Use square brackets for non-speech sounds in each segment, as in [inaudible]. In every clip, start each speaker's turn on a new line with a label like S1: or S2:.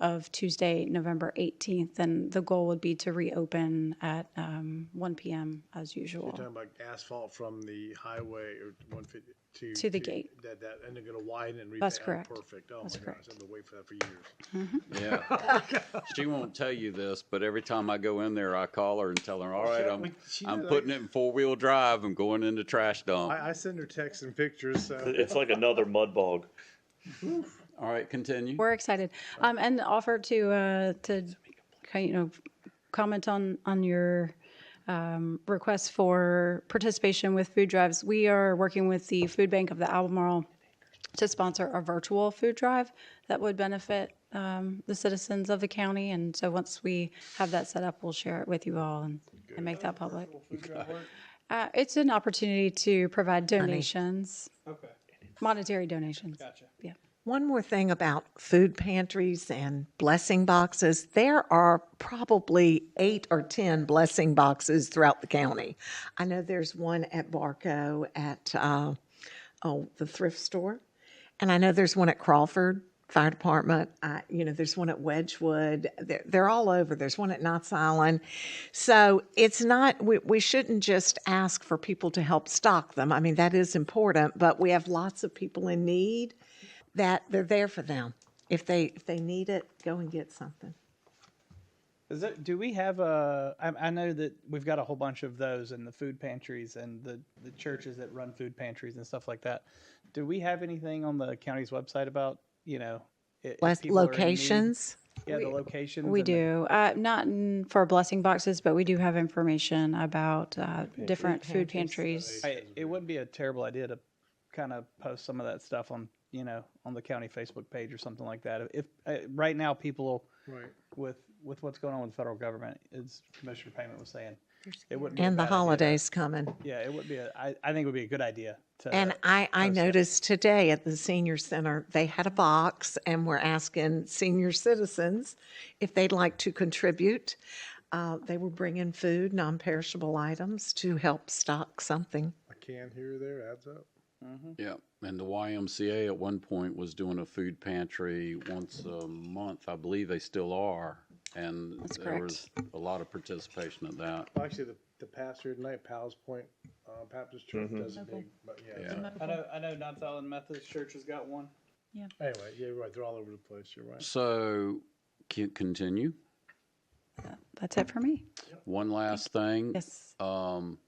S1: of Tuesday, November 18th, and the goal would be to reopen at um, 1 PM as usual.
S2: Talking about asphalt from the highway or one fifty to.
S1: To the gate.
S2: That, that, and they're gonna widen and. re-
S1: That's
S2: oh,
S1: correct.
S2: Perfect. Oh my
S1: That's
S2: gosh,
S1: correct.
S2: I've been waiting for that for years. [laughs]
S3: Yeah. She won't tell you this, but every time I go in there, I call her and tell her, all right,
S2: Yeah,
S3: I'm,
S2: we- she
S3: I'm
S2: did,
S3: putting
S2: I-
S3: it in four wheel drive. I'm going in the trash dump.
S2: I, I send her texts and pictures, so.
S4: It's like another mud bog.
S3: All right, continue.
S1: We're excited. Um, and offer to, uh, to, ki- you know, comment on, on your, um, request for participation with food drives. We are working with the Food Bank of the Albemarle to sponsor a virtual food drive that would benefit, um, the citizens of the county. And so once we have that set up, we'll share it with you all and, and make that public. Uh, it's an opportunity to provide donations,
S2: Okay,
S1: monetary donations.
S2: gotcha.
S1: Yeah.
S5: One more thing about food pantries and blessing boxes. There are probably eight or 10 blessing boxes throughout the county. I know there's one at Barco at uh, oh, the thrift store. And I know there's one at Crawford Fire Department. I, you know, there's one at Wedgewood. They're, they're all over. There's one at Knott's Island. So it's not, we, we shouldn't just ask for people to help stock them. I mean, that is important, but we have lots of people in need that they're there for them. If they, if they need it, go and get something.
S6: Is there, do we have a? I, I know that we've got a whole bunch of those in the food pantries and the, the churches that run food pantries and stuff like that. Do we have anything on the county's website about you know i- if
S5: Less
S6: people are in need?
S5: locations.
S6: Yeah, the locations.
S1: We
S6: and the-
S1: do, uh, not in, for blessing boxes, but we do have information about, uh, different food pantries.
S6: I, it wouldn't be a terrible idea to kind of post some of that stuff on you know on the county Facebook page or something like that. If uh, right now people
S2: Right.
S6: with with what's going on with the federal government, as Commissioner Payment was saying, it wouldn't be a
S5: And the
S6: bad idea.
S5: holidays coming.
S6: Yeah, it would be. A, I, I think it would be a good idea to.
S5: And I, I noticed today at the senior center, they had a box and were asking senior citizens if they'd like to contribute. Uh, they were bringing food, non-perishable items to help stock something.
S2: A can here or there adds up.
S3: Yeah, and the YMCA at one point was doing a food pantry once a month. I believe they still are. And there
S1: correct.
S3: was a lot of participation at that.
S2: Well, Actually, the, the pastor tonight, Powell's Point, uh, Baptist Church does a big, but yeah.
S3: Mm-hmm. Yeah.
S6: I know. I know. North Island Methodist Church has got one.
S2: Anyway, yeah, you're right, they're all over the place, you're right.
S3: So, can continue.
S1: Uh, That's it for me.
S3: One last thing.
S1: Yes.
S3: Um,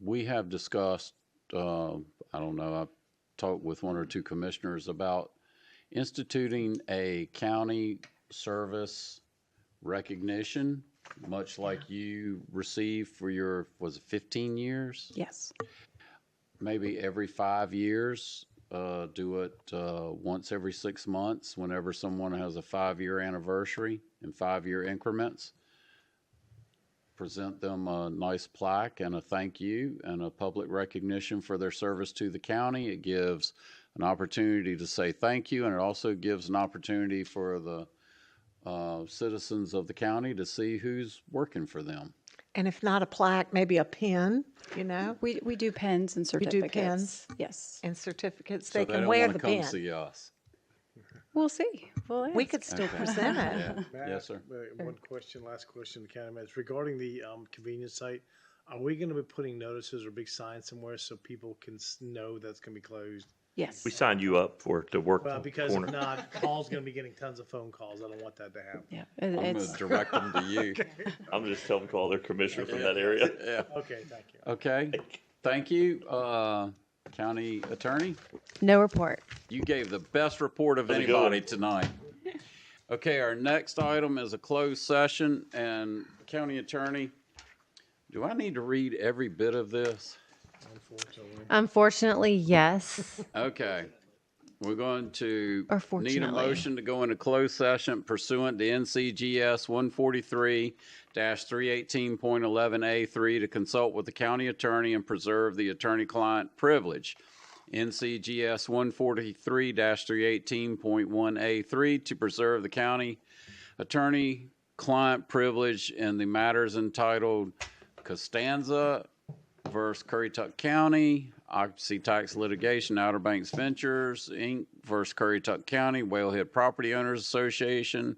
S3: we have discussed, uh, I don't know, I've talked with one or two commissioners about instituting a county service recognition, much like you received for your, was it 15 years?
S1: Yes.
S3: Maybe every five years, uh, do it uh, once every six months, whenever someone has a five year anniversary in five year increments present them a nice plaque and a thank you and a public recognition for their service to the county. It gives an opportunity to say thank you, and it also gives an opportunity for the uh, citizens of the county to see who's working for them.
S5: And if not a plaque, maybe a pin, you know,
S1: We, we do pins and certificates.
S5: pins?
S1: Yes.
S5: and certificates.
S3: So
S5: They can
S3: don't
S5: wear
S3: wanna
S5: the
S3: come
S5: pin.
S3: see
S5: [laughs]
S3: us.
S1: We'll see. We'll
S5: We
S1: ask.
S5: could still present it.
S3: [laughs] Yeah.
S2: May I
S3: Yes,
S2: ask,
S3: sir.
S2: uh, One question, last question, to county manager, regarding the um, convenience site, are we gonna be putting notices or big signs somewhere so people can s- know that's gonna be closed?
S1: Yes.
S4: We signed you up for it to work
S2: Well,
S4: the
S2: because if
S4: corner.
S2: not, Paul's gonna be getting tons of phone calls, I don't want that to happen.
S1: Yeah. It-
S3: I'm going
S1: it's- [laughs]
S3: to direct them to you.
S4: I'm gonna just tell them to call their commissioner from that area.
S3: Yeah.
S2: Okay, thank you.
S3: Okay. Thank you, uh, County Attorney.
S7: No report.
S3: You gave the best report of
S4: How's it going?
S3: anybody tonight. Okay, our next item is a closed session, and County Attorney, do I need to read every bit of this?
S7: Unfortunately, yes.
S3: Okay. We're going to
S7: Or
S3: need a
S7: fortunately.
S3: motion to go into closed session pursuant to NCGS one forty-three three eighteen point eleven A three to consult with the county attorney and preserve the attorney-client privilege. NCGS one forty-three three eighteen point one A three to preserve the county attorney-client privilege in the matters entitled Costanza versus Currituck County, Occupancy tax litigation, Outer Banks Ventures, Inc. versus Curry Tuck County, Whalehead Property Owners Association,